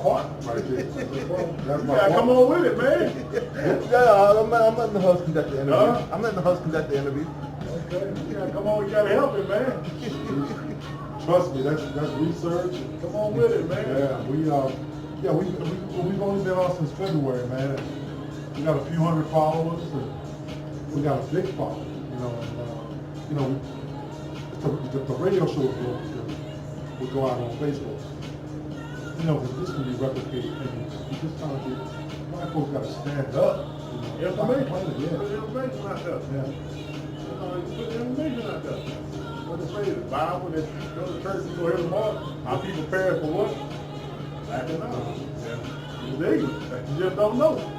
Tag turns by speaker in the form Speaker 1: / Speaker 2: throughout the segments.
Speaker 1: heart right there. That's
Speaker 2: You
Speaker 1: my
Speaker 2: gotta
Speaker 1: heart.
Speaker 2: come on with it, man.
Speaker 1: Yeah, I'm, I'm letting the host conduct the interview.
Speaker 2: Huh?
Speaker 1: I'm letting the host conduct the interview.
Speaker 2: Okay, You gotta come on, you gotta help it, man.
Speaker 1: Trust me, that's that's research.
Speaker 2: Come on with it, man.
Speaker 1: Yeah, we uh, yeah, we, we we've only been on since February, man. We got a few hundred followers, and we got a big following, you know. And, uh, you know, the, the, the radio show will, will go out on Facebook. You know, 'cause this can be replicated, and you just kind of get, black folks got to stand up. You know, stop
Speaker 2: Information, put
Speaker 1: complaining, yeah.
Speaker 2: the information out there.
Speaker 1: Yeah.
Speaker 2: You know, you Put the information out there. What they say, the Bible, that you go to church, you go every month, our people prepared for what? Lack of knowledge. Yeah. It's ignorant, you just don't know.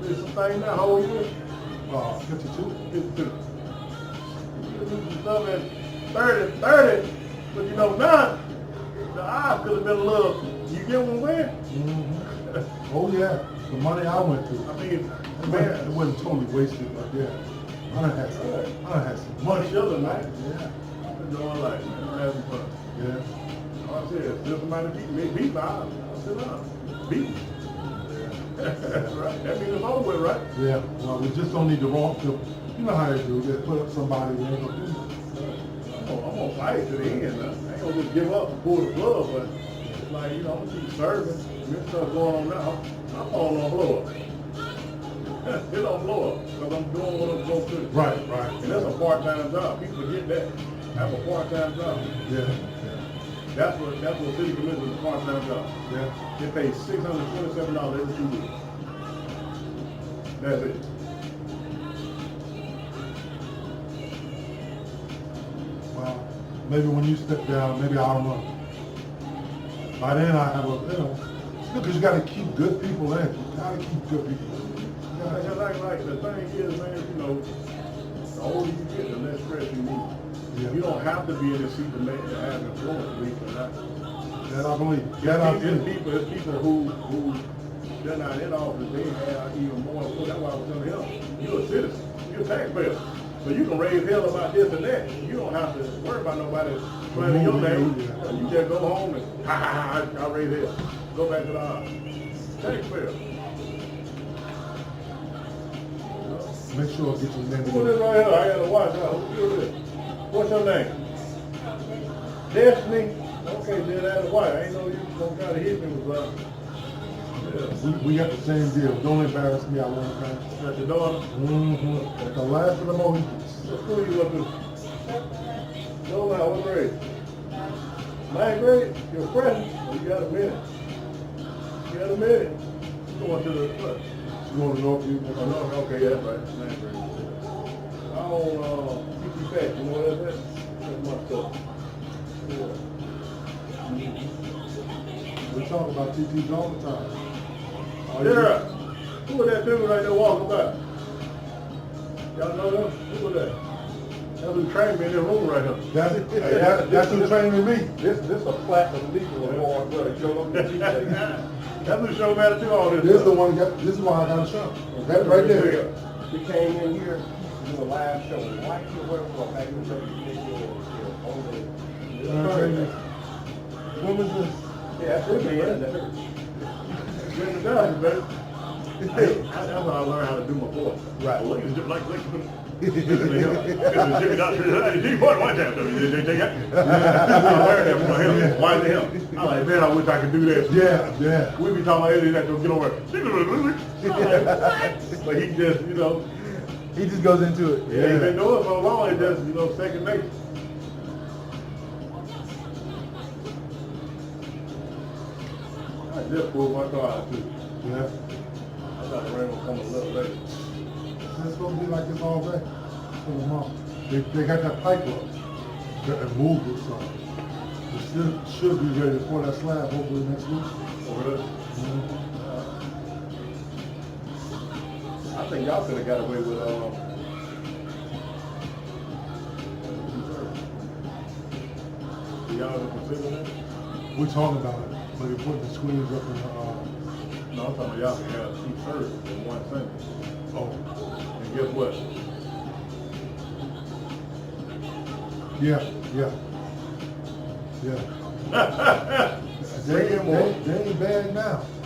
Speaker 2: There's some things that hold you
Speaker 1: Uh, 52.
Speaker 2: into. You do some stuff at thirty, thirty, but you know, now, the odds could have been a little, you get one win.
Speaker 1: Mhm. Oh yeah, the money I went to,
Speaker 2: I
Speaker 1: it
Speaker 2: mean,
Speaker 1: wasn't, it
Speaker 2: man,
Speaker 1: wasn't totally wasted, but yeah, I done had some, I done had some
Speaker 2: one
Speaker 1: money.
Speaker 2: shilling, man.
Speaker 1: Yeah,
Speaker 2: You know, I'm like, man, I'm having fun.
Speaker 1: yeah.
Speaker 2: All I said, if somebody beat me, beat me, I I sit down. Beat me. That's right. That means it's over with, right?
Speaker 1: Yeah, well, we just don't need the wrong, the- you know how they do, they put up somebody, they ain't gonna do nothing.
Speaker 2: I'm gonna, Oh, I'm gonna fight to the end. I ain't gonna just give up and pull the plug, but it's like, you know, I'm gonna keep serving. This stuff going on now, my phone don't blow up. it don't blow up, because I'm doing what I'm supposed to. do.
Speaker 1: Right, right.
Speaker 2: And that's a part-time job. People forget that. That's a part-time job.
Speaker 1: Yeah,
Speaker 2: That's what, that's what city commission is a part-time job.
Speaker 1: yeah, yeah,
Speaker 2: They pay six hundred twenty-seven dollars every two weeks. That's it.
Speaker 1: well, maybe when you step down, maybe I'll run. By then I have a, you know, because you gotta keep good people in, you gotta keep good people. in. You
Speaker 2: Like,
Speaker 1: gotta-
Speaker 2: like, like, the thing is, man, you know, the older you get, the less stress you need.
Speaker 1: Yeah.
Speaker 2: You don't have to be in the seat to make, to have influence, believe it or not.
Speaker 1: That I believe, that I
Speaker 2: There's
Speaker 1: do.
Speaker 2: people, there's people who, who, they're not in office, they have even more, influence. that's why I was telling him, you're a citizen, you're a taxpayer. So you can raise hell about this and that, you don't have to worry about nobody running your name.
Speaker 1: Yeah.
Speaker 2: You just go home and, ha, ha, ha, I I raised hell, go back to the office, taxpayer.
Speaker 1: Make sure I get your name.
Speaker 2: Who is this right here? I gotta watch out. Who is this? What's your name? Destiny? Okay, then that's white. I ain't know you gonna try to hit me with something. Yeah.
Speaker 1: We, we got the same deal. Don't embarrass me. I won't embarrass
Speaker 2: That's your daughter.
Speaker 1: you. Mm-hmm. the last of the Mohicans.
Speaker 2: What school you up to? No, now, what grade? Ninth grade? You're a freshman? Oh, You got a minute. You got a minute. You going to the club.
Speaker 1: You want to know if you
Speaker 2: Oh, no, okay, yeah, that's right. Ninth grade. I don't, uh, keep you fat. You know what that is? That's my stuff. Yeah.
Speaker 1: We talk about TTs all the time. Are you-
Speaker 2: Yeah. Who was that dude right there walking by? Y'all know him? Who was that? That was trained me in the room right here.
Speaker 1: That's, hey, that, that's who training me.
Speaker 3: This, this a platinum legal award, brother, Joe. Don't get you that.
Speaker 2: That's who showed me how to do all this.
Speaker 1: This is the one, got, this is why I got a shot. That right there.
Speaker 3: We came in here, to do a live show, why you work for a package of you
Speaker 1: You know what I'm saying? What was this?
Speaker 3: Yeah, that's it, man. That hurts.
Speaker 2: Bring it down, baby. Hey, I- That's how I learned how to do my voice.
Speaker 1: Right.
Speaker 2: Look, it's just like, like, listen to him. Listen to Jimmy Dodger. Hey, Jimmy, what- what's that? I learned that from him. Why is it him? I'm like, man, I wish I could do that.
Speaker 1: Yeah, yeah.
Speaker 2: We be talking about Eddie that don't get over. it. but he just, you know,
Speaker 1: He just goes into it.
Speaker 2: he ain't been doing it so long. It just, you know, second nature. I just pulled my car out too.
Speaker 1: Yeah.
Speaker 2: I thought the rain was coming a little later.
Speaker 1: It's gonna be like this all day. Till tomorrow. They, they got that pipe up. That moved or something. It should, should be ready to pour that slab hopefully next week.
Speaker 2: Over there.
Speaker 1: Mhm.
Speaker 2: I think y'all could have got away with, um, do y'all ever consider that?
Speaker 1: We're talking about it, but they put the screens up in the, uh,
Speaker 2: No, I'm talking about y'all can have two services in one sentence.
Speaker 1: oh,
Speaker 2: And guess what?
Speaker 1: yeah, yeah, yeah. They, they, they ain't bad now.